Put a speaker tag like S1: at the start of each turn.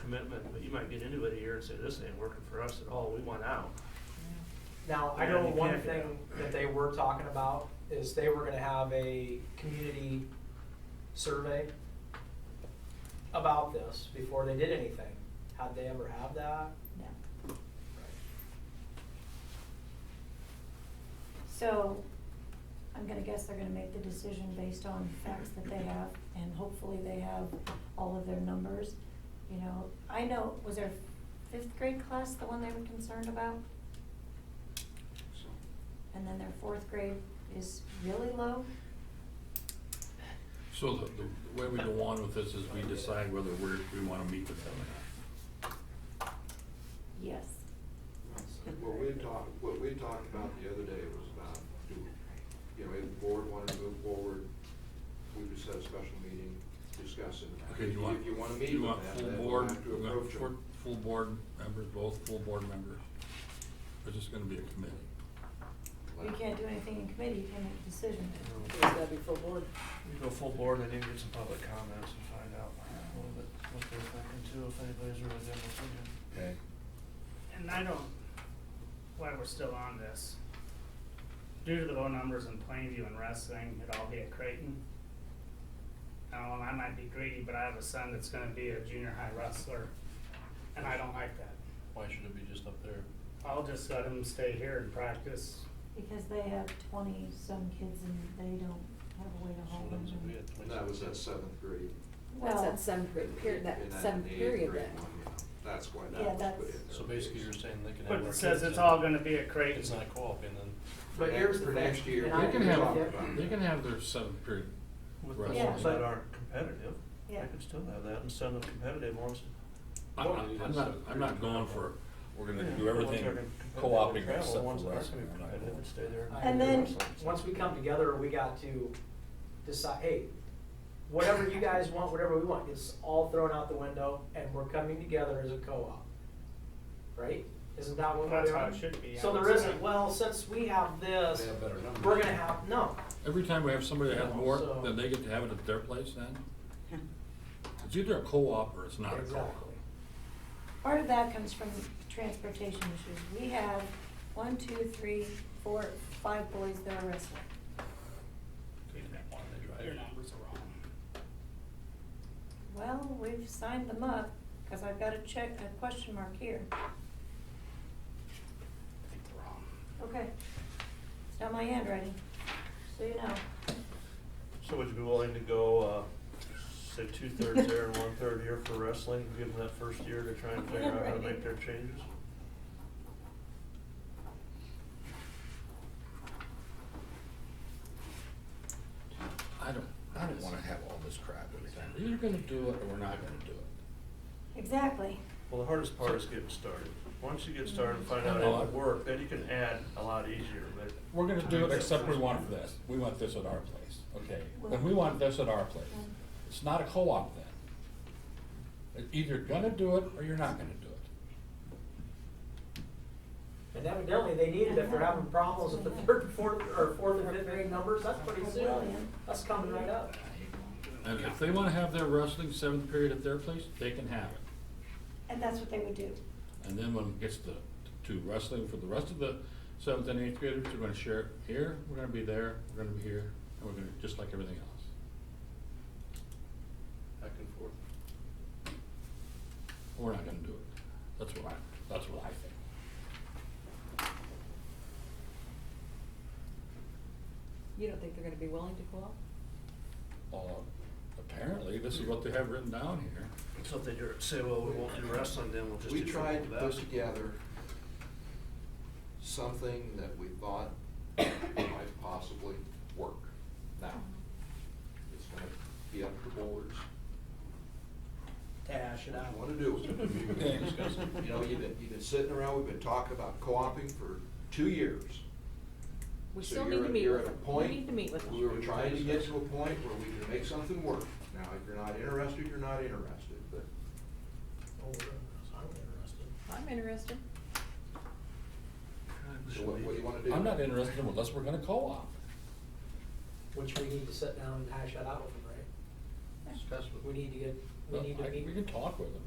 S1: commitment, but you might get into it here and say, this ain't working for us at all, we want out.
S2: Now, I
S1: Yeah,
S2: know
S1: you
S2: one
S1: can't get
S2: thing that they were talking about is they were gonna have a community survey about this before they did anything. Had they ever have that?
S3: No. So I'm gonna guess they're gonna make the decision based on facts that they have, and hopefully they have all of their numbers. You know, I know, was their fifth grade class the one they were concerned about? And then their fourth grade is really low?
S4: So the, the way we go on with this is we decide whether we're, we wanna meet with them or
S3: Yes.
S5: What we had talked, what we had talked about the other day was about, do, you know, if the board wanted to move forward, we would set a special meeting, discuss it.
S4: not. Okay, do you want?
S5: If you wanna meet
S4: do you
S5: with
S4: want
S5: them,
S4: full
S5: then we'll
S4: board-
S5: have to
S4: you want
S5: approach
S4: full-
S5: them.
S4: Full board members, both full board members. It's just gonna be a committee.
S3: You can't do anything in committee, you can't make a decision.
S6: It's gotta be full board.
S1: You go full board, and then get some public comments and find out a little bit what they're thinking too, if anybody's really got an opinion.
S4: Okay.
S7: And I don't, why we're still on this, due to the low numbers in Plainview and wrestling, it'd all be at Creighton. Now, and I might be greedy, but I have a son that's gonna be a junior high wrestler, and I don't like that.
S8: Why should it be just up there?
S7: I'll just let him stay here and practice.
S3: Because they have twenty-some kids and they don't have a way to
S8: So
S3: hold them.
S8: that's what we had,
S5: And that was that seventh grade.
S6: That's
S3: Well.
S6: that some period, that
S5: and
S6: some
S5: the eighth
S6: period
S5: grade
S6: then.
S5: one, you know, That's why
S3: Yeah,
S5: that was put
S3: that's-
S5: in there.
S8: So basically you're saying they can have.
S7: But
S8: more
S7: it says
S8: kids
S7: it's
S8: and
S7: all gonna be at Creighton.
S8: It's not co-oping then.
S5: For
S2: But
S5: next-
S2: here's the
S5: For
S2: thing,
S5: next year.
S2: and
S5: we
S2: I
S4: They can
S5: can
S4: have,
S5: talk about
S4: they
S5: that.
S4: can have their seventh period.
S1: With
S4: Right.
S3: Yeah.
S1: ones that aren't competitive, they
S3: Yeah.
S1: can still have that, and some of the competitive ones,
S4: I'm not, I'm not, I'm not going for, we're gonna do
S1: Yeah, the ones
S4: everything
S1: that are gonna compete, they
S4: co-opting
S1: travel,
S4: except
S1: the
S4: for
S1: ones that aren't
S4: wrestling.
S1: gonna be
S4: We're not
S1: competitive
S4: going.
S1: and stay there.
S3: And then-
S2: Once we come together, we got to decide, hey, whatever you guys want, whatever we want, it's all thrown out the window and we're coming together as a co-op. Right? Isn't that what we're
S7: That's how
S2: doing?
S7: it should be, I
S2: So
S7: would
S2: there
S7: say.
S2: isn't, well, since we have this,
S5: They have better numbers.
S2: we're gonna have, no,
S4: Every time we have somebody that has
S2: No, so-
S4: more, then they get to have it at their place then? It's either a co-op or it's not a co-op.
S2: exactly.
S3: Part of that comes from transportation issues. We have one, two, three, four, five boys that are wrestling.
S7: Your numbers are wrong.
S3: Well, we've signed them up, cause I've got a check, a question mark here.
S7: I think they're wrong.
S3: Okay. It's not my handwriting, so you know.
S1: So would you be willing to go, uh, say two-thirds there and one-third here for wrestling, and give them that first year to try and figure out how to make their changes?
S9: I don't, I don't wanna have all this crap every time. We're either gonna do it or we're not gonna do it.
S3: Exactly.
S1: Well, the hardest part is getting started. Once you get started and find out it would work, then you can add a lot easier, but.
S4: We're gonna do it except we want this, we want this at our place, okay?
S3: Well-
S4: And we want this at our place. It's not a co-op then. You're Either gonna do it or you're not gonna do it.
S2: And evidently, they need it if they're having problems with the third, fourth, or fourth and fifth grade numbers, that's pretty soon, that's coming right up.
S4: And if they wanna have their wrestling seventh period at their place, they can have it.
S3: And that's what they would do.
S4: And then when it gets to, to wrestling for the rest of the seventh and eighth graders, we're gonna share it here, we're gonna be there, we're gonna be here, and we're gonna, just like everything else.
S8: Back and forth.
S4: We're not gonna do it. That's what I, that's what I think.
S6: You don't think they're gonna be willing to co-op?
S4: Well, Uh, apparently, this is what they have written down here.
S1: So if they do- say, well, we won't do wrestling, then we'll just do
S5: We tried to
S1: football,
S5: put
S1: basketball.
S5: together something that we thought might possibly work. Now, it's gonna be up to the boards.
S2: Dash it
S5: I
S2: out.
S5: wanna do
S8: We
S5: it.
S8: can discuss it.
S5: You know, you've been, you've been sitting around, we've been talking about co-oping for two years.
S6: We
S5: So
S6: still need
S5: you're
S6: to
S5: at-
S6: meet
S5: you're
S6: with
S5: at a
S6: them. We
S5: point-
S6: need to meet with them.
S5: We were trying to get to a point where we can make something work. Now, if you're not interested, you're not interested, but
S2: oh,
S6: I'm interested.
S5: so what, what do you wanna do?
S4: I'm not interested unless we're gonna co-op.
S2: Which we need to sit down and hash that out with them, right?
S8: Discuss
S2: We
S8: with.
S2: need to get, we need to
S4: I-
S2: meet.
S4: We can talk with them.